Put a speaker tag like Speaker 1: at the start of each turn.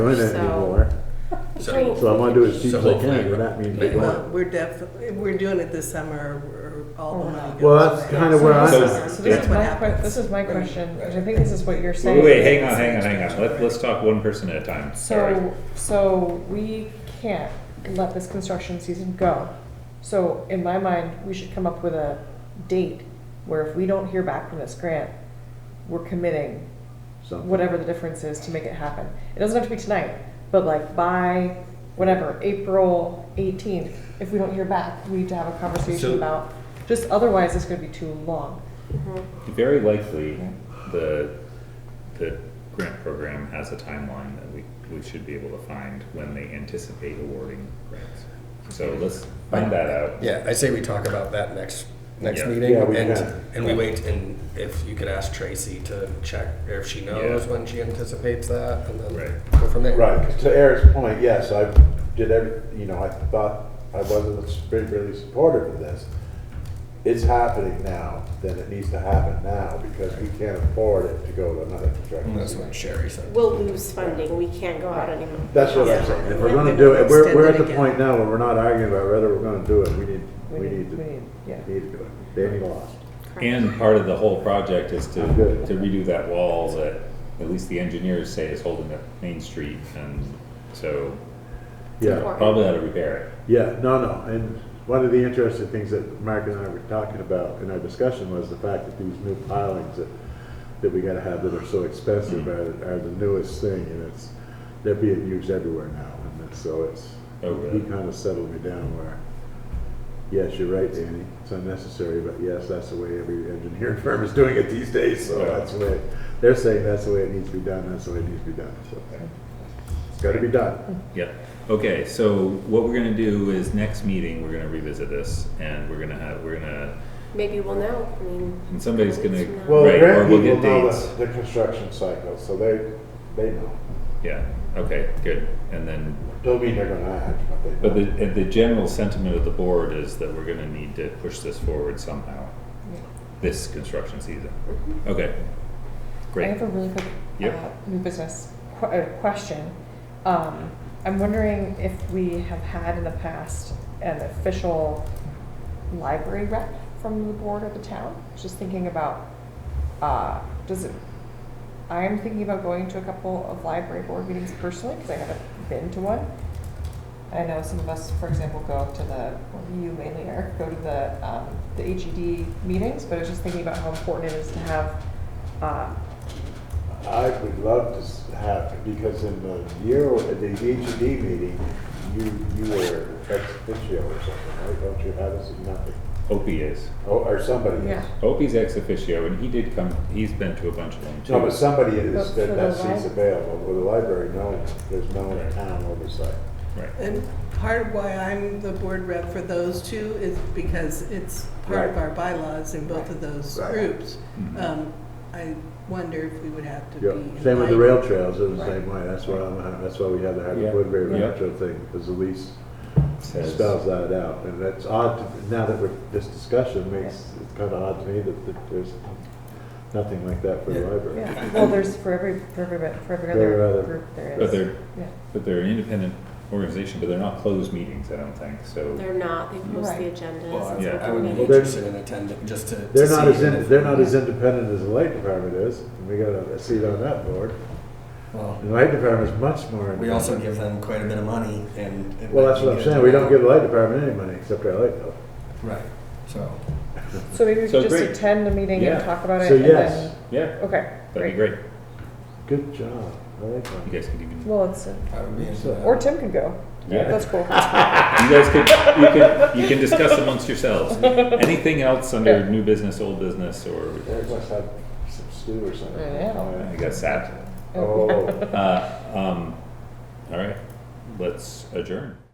Speaker 1: doing it
Speaker 2: So-
Speaker 1: anymore.
Speaker 3: So-
Speaker 1: So I want to do it as cheap
Speaker 3: So
Speaker 1: as I
Speaker 3: hopefully-
Speaker 1: can, but that means.
Speaker 3: Right.
Speaker 4: Well, we're definitely, we're doing it this summer, or all the money goes.
Speaker 1: Oh. Well, that's kind of where I'm.
Speaker 5: So-
Speaker 1: at.
Speaker 2: So this
Speaker 4: That's
Speaker 2: is
Speaker 4: what
Speaker 2: my,
Speaker 4: happens.
Speaker 2: que- this is my
Speaker 4: Right.
Speaker 2: question, which I think this is what you're saying.
Speaker 5: Wait, wait, hang on, hang on, hang on. Let, let's talk one person at a time. Sorry.
Speaker 2: So, so we can't let this construction season go. So in my mind, we should come up with a date where if we don't hear back from this grant, we're committing
Speaker 1: Something.
Speaker 2: whatever the difference is to make it happen. It doesn't have to be tonight, but like by whatever, April eighteenth, if we don't hear back, we need to have a conversation
Speaker 5: So-
Speaker 2: about, just otherwise it's gonna be too long.
Speaker 5: Very likely, the, the grant program has a timeline that we, we should be able to find when they anticipate awarding grants. So let's find that out.
Speaker 3: Yeah, I say we talk about that next, next
Speaker 5: Yeah.
Speaker 3: meeting,
Speaker 1: Yeah, we
Speaker 3: and,
Speaker 1: can.
Speaker 3: and we wait, and if you could ask Tracy to check if she knows
Speaker 5: Yeah.
Speaker 3: when she anticipates that, and then
Speaker 5: Right.
Speaker 3: go from there.
Speaker 1: Right, 'cause to Eric's point, yes, I did every, you know, I thought I wasn't really- really supportive of this. It's happening now, then it needs to happen now, because we can't afford it to go to another
Speaker 3: And that's
Speaker 1: contractor.
Speaker 3: what Sherry said.
Speaker 6: We'll lose funding, we can't go out anymore.
Speaker 1: That's what I'm
Speaker 4: Yeah.
Speaker 1: saying, if we're gonna do it, we're,
Speaker 4: Extend
Speaker 1: we're
Speaker 4: it
Speaker 1: at the
Speaker 4: again.
Speaker 1: point now where we're not arguing about whether we're gonna do it, we need, we need to,
Speaker 2: We need, yeah.
Speaker 1: need to do it. Danny lost.
Speaker 5: And part of the whole project is to,
Speaker 1: Good.
Speaker 5: to redo that wall that, at least the engineers say is holding up Main Street, and so
Speaker 1: Yeah,
Speaker 6: important.
Speaker 5: probably ought to repair it.
Speaker 1: yeah, no, no, and one of the interesting things that Mark and I were talking about in our discussion was the fact that these new pilings that, that we gotta have that are so expensive are, are the newest thing, and it's, they're being used everywhere now, and it's- so it's,
Speaker 5: Oh,
Speaker 1: he
Speaker 5: really?
Speaker 1: kinda settled me down where, yes, you're right, Danny, it's unnecessary, but yes, that's the way every engineering firm is doing it these days, so
Speaker 5: Yeah.
Speaker 1: that's the way, they're saying that's the way it needs to be done, that's the way it needs to be done, so. It's gotta be done.
Speaker 5: Yep. Okay, so what we're gonna do is next meeting, we're gonna revisit this and we're gonna have, we're gonna,
Speaker 6: Maybe we'll know, I mean.
Speaker 5: and somebody's gonna.
Speaker 1: Well, the
Speaker 5: right, or
Speaker 1: grant
Speaker 5: we'll
Speaker 1: people
Speaker 5: get
Speaker 1: know
Speaker 5: dates.
Speaker 1: the, the construction cycle, so they, they know.
Speaker 5: Yeah, okay, good. And then,
Speaker 1: Don't mean they're gonna act, but they know.
Speaker 5: but the, and the general sentiment of the board is that we're gonna need to push this forward somehow, this construction season. Okay,
Speaker 2: Mm-hmm. I
Speaker 5: great.
Speaker 2: have a really quick
Speaker 5: Yep.
Speaker 2: uh, new business qu- uh, question. Um, I'm wondering if we have had in the past an official library rep from the board of the town? Just thinking about, uh, does it, I am thinking about going to a couple of library board meetings personally, because I haven't been to one. I know some of us, for example, go to the, well, you mainly, Eric, go to the, um, the HED meetings, but I was just thinking about how important it is to have, uh,
Speaker 1: I would love to s- have, because in the year, at the HED meeting, you, you were ex officio or something, right? Don't you have us in nothing?
Speaker 5: Opie is.
Speaker 1: Oh, or somebody is.
Speaker 2: Yeah.
Speaker 5: Opie's ex officio and he did come, he's been to a bunch of them too.
Speaker 1: No, but somebody
Speaker 2: But
Speaker 1: is,
Speaker 2: for
Speaker 1: that,
Speaker 2: the
Speaker 1: that seat's
Speaker 2: lib-
Speaker 1: available. With the library, no, there's no town oversight.
Speaker 5: Right.
Speaker 4: And part of why I'm the board rep for those two is because it's part of
Speaker 1: Right.
Speaker 4: our bylaws in both of those
Speaker 1: Right.
Speaker 4: groups.
Speaker 5: Mhm.
Speaker 4: Um, I wonder if we would have to be.
Speaker 1: Yeah, same with the
Speaker 4: invited.
Speaker 1: rail trails, it was the same way, that's why, I'm- that's why we had the
Speaker 5: Yeah.
Speaker 1: Hardwick Woodbury
Speaker 5: Yeah.
Speaker 1: rail trail thing, because the lease
Speaker 5: Says-
Speaker 1: spells that out, and that's odd, to- now that we're, this discussion makes, it's kind of odd to me that, that there's nothing like that for the
Speaker 3: Yeah.
Speaker 1: library.
Speaker 2: Yeah, well, there's for every, for every, for every
Speaker 1: There are
Speaker 2: other
Speaker 1: other-
Speaker 2: group there
Speaker 5: But
Speaker 2: is.
Speaker 5: they're,
Speaker 2: Yeah,
Speaker 5: but they're an independent organization, but they're not closed meetings, I don't think, so.
Speaker 6: They're not, they post the
Speaker 2: Right.
Speaker 3: Well,
Speaker 6: agendas.
Speaker 3: I
Speaker 6: it's
Speaker 3: would-
Speaker 5: Yeah.
Speaker 3: I
Speaker 1: They're-
Speaker 6: open
Speaker 3: would be
Speaker 6: meeting.
Speaker 3: interested in attending, just to. to
Speaker 1: They're not
Speaker 3: see
Speaker 1: as,
Speaker 3: even
Speaker 1: in-
Speaker 3: if-
Speaker 1: they're not as independent as the light department is, and we got a seat on that board.
Speaker 3: Well,
Speaker 1: The light department's much more.
Speaker 3: we also
Speaker 1: independent.
Speaker 3: give them quite a bit of money, and. it
Speaker 1: Well,
Speaker 3: might
Speaker 1: that's
Speaker 3: be
Speaker 1: what I'm
Speaker 3: good
Speaker 1: saying,
Speaker 3: to
Speaker 1: we don't
Speaker 3: know.
Speaker 1: give the light department any money, except our light bill.
Speaker 3: Right, so.
Speaker 2: so maybe we
Speaker 5: So
Speaker 2: could just
Speaker 5: great.
Speaker 2: attend the meeting and
Speaker 5: Yeah.
Speaker 2: talk about it
Speaker 1: So
Speaker 2: and
Speaker 1: yes,
Speaker 2: then,
Speaker 5: Yeah,
Speaker 2: okay,
Speaker 5: that'd
Speaker 2: great.
Speaker 5: be great.
Speaker 1: good job, I like that.
Speaker 5: You guys can even
Speaker 2: Well, it's, uh,
Speaker 3: I would be into
Speaker 1: So-
Speaker 3: that.
Speaker 2: or Tim can go,
Speaker 5: Yeah.
Speaker 2: that's cool.
Speaker 5: You guys could, you can, you can discuss amongst yourselves. Anything else under new business, old business, or,
Speaker 1: Eric must have some stew or something.
Speaker 2: Yeah.
Speaker 5: I got sad.
Speaker 1: Oh.
Speaker 5: Uh, um, all right, let's adjourn.